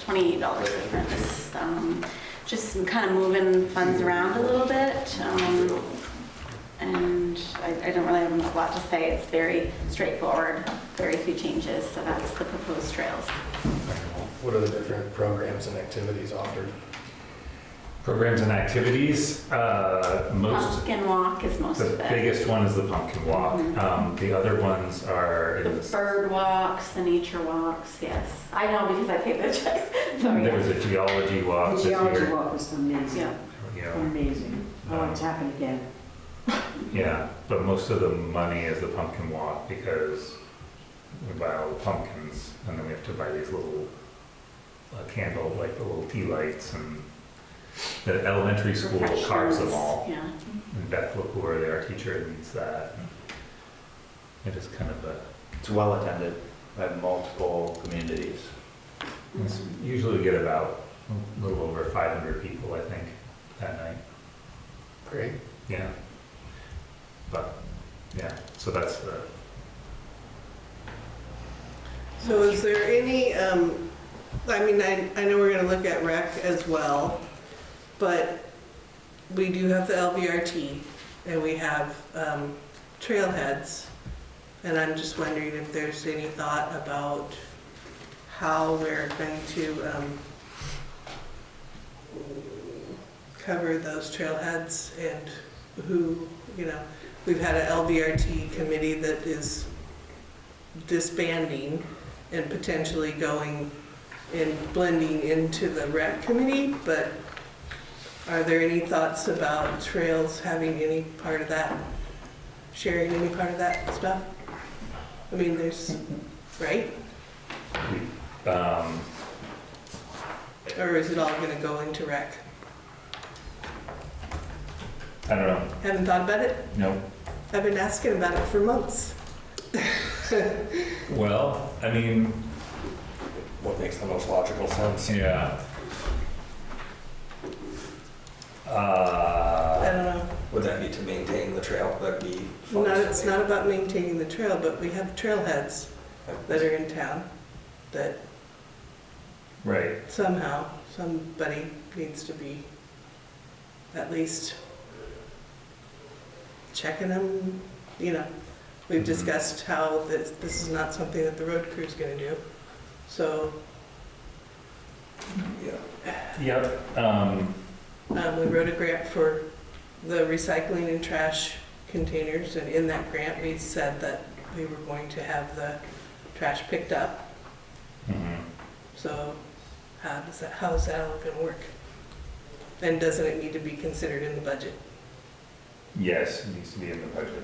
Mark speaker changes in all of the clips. Speaker 1: twenty-eight dollars difference. Um, Just kind of moving funds around a little bit. um, And I, I don't really have a lot to say. It's very straightforward, very few changes, so that's the proposed trails.
Speaker 2: What are the different programs and activities offered?
Speaker 3: Programs and activities, uh, most,
Speaker 1: Pumpkin walk is most
Speaker 3: the
Speaker 1: of it.
Speaker 3: biggest one is the pumpkin walk.
Speaker 1: Mhm.
Speaker 3: Um, the other ones are,
Speaker 1: The bird walks, the nature walks, yes. I know because I paid the checks. Sorry.
Speaker 3: there was a geology walk
Speaker 4: The
Speaker 3: this
Speaker 4: geology
Speaker 3: year.
Speaker 4: walk was amazing,
Speaker 1: Yeah.
Speaker 3: You know,
Speaker 4: amazing. Oh, it's happened again.
Speaker 3: yeah, but most of the money is the pumpkin walk because we buy all the pumpkins and then we have to buy these little uh, candle, like the little tea lights and the elementary school carves them
Speaker 1: Refreshments,
Speaker 3: all.
Speaker 1: Yeah.
Speaker 3: And Beth LaCour, our teacher, leads that. It is kind of a,
Speaker 5: It's well attended by multiple communities.
Speaker 3: it's usually we get about a little over 500 people, I think, that night.
Speaker 2: Great.
Speaker 3: Yeah. But, yeah, so that's the,
Speaker 6: So is there any, um, I mean, I, I know we're gonna look at rec as well, but we do have the LVRT and we have, um, trailheads. And I'm just wondering if there's any thought about how we're going to, um, cover those trailheads and who, you know, we've had a LVRT committee that is disbanding and potentially going and blending into the rec committee, but are there any thoughts about trails having any part of that, sharing any part of that stuff? I mean, there's, right?
Speaker 3: um,
Speaker 6: Or is it all gonna go into rec?
Speaker 3: I don't know.
Speaker 6: Haven't thought about it?
Speaker 3: No.
Speaker 6: I've been asking about it for months.
Speaker 3: Well, I mean,
Speaker 2: What makes the most logical sense?
Speaker 3: yeah.
Speaker 6: I
Speaker 3: Uh,
Speaker 6: don't know.
Speaker 7: Would that be to maintain the trail? That'd be funds
Speaker 6: Not,
Speaker 7: to
Speaker 6: it's not about maintaining the trail, but we have trailheads that are in town that
Speaker 3: right.
Speaker 6: somehow, somebody needs to be at least checking them, you know. We've
Speaker 7: Mm-hmm.
Speaker 3: Mhm.
Speaker 6: discussed how this, this is not something that the road crew's gonna do, so,
Speaker 7: maintain. Yeah.
Speaker 3: Yep. Um,
Speaker 6: um, we wrote a grant for the recycling and trash containers, and in that grant, we said that we were going to have the trash picked up,
Speaker 3: mhm.
Speaker 6: so how does that, how is that all gonna work? And doesn't it need to be considered in the budget?
Speaker 3: Yes, it needs to be in the budget.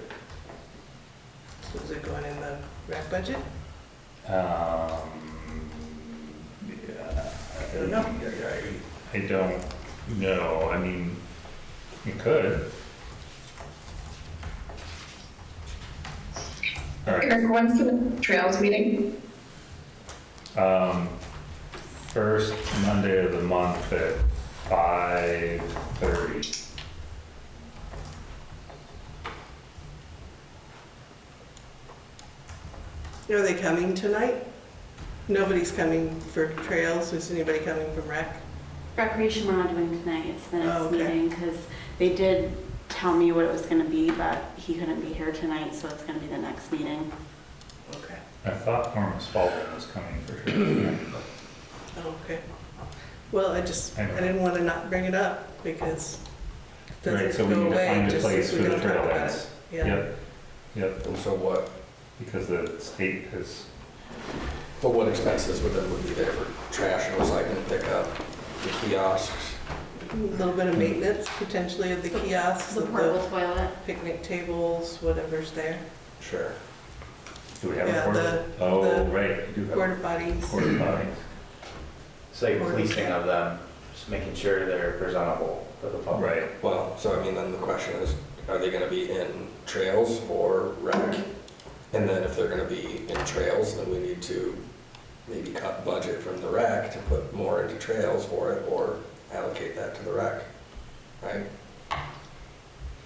Speaker 6: So Is it going in the rec budget?
Speaker 3: Um, yeah,
Speaker 6: I don't know.
Speaker 3: I don't know, I mean, you could. All right,
Speaker 8: Eric, when's the trails meeting?
Speaker 3: um, first Monday of the month at five thirty.
Speaker 6: Are they coming tonight? Nobody's coming for trails, is anybody coming from rec?
Speaker 1: Recreation we're not doing tonight, it's the
Speaker 6: Oh,
Speaker 1: next
Speaker 6: okay.
Speaker 1: meeting, because they did tell me what it was gonna be, but he couldn't be here tonight, so it's gonna be the next meeting.
Speaker 6: Okay.
Speaker 3: I thought Norma Spalding was coming for sure.
Speaker 6: Oh, okay. Well, I just, I
Speaker 3: Anyway.
Speaker 6: didn't want to not bring it up because it
Speaker 3: Right, so
Speaker 6: doesn't
Speaker 3: we
Speaker 6: go
Speaker 3: need to
Speaker 6: away
Speaker 3: find a
Speaker 6: just
Speaker 3: place
Speaker 6: if
Speaker 3: for
Speaker 6: we
Speaker 3: the
Speaker 6: don't talk about it.
Speaker 3: trailheads.
Speaker 6: Yeah,
Speaker 3: Yep, yep,
Speaker 2: And so what,
Speaker 3: because the state has
Speaker 7: But what expenses would that would be there for trash and recycling pickup, the kiosks?
Speaker 6: a little bit of maintenance potentially of the kiosks,
Speaker 1: The
Speaker 6: of the
Speaker 1: portable toilet,
Speaker 6: picnic tables, whatever's there,
Speaker 7: Sure.
Speaker 3: Do we have a
Speaker 6: Yeah,
Speaker 3: quarter?
Speaker 6: the-
Speaker 3: Oh,
Speaker 6: the-
Speaker 3: right, we do have
Speaker 6: porta
Speaker 3: a
Speaker 6: potties.
Speaker 3: quarter potty.
Speaker 5: It's like
Speaker 6: Or-
Speaker 5: policing of them, just making sure they're presentable for the public.
Speaker 3: Oh, Right,
Speaker 7: Well, so I mean, then the question is, are they gonna be in trails or rec? And then if they're gonna be in trails, then we need to maybe cut budget from the rec to put more into trails for it or allocate that to the rec, right?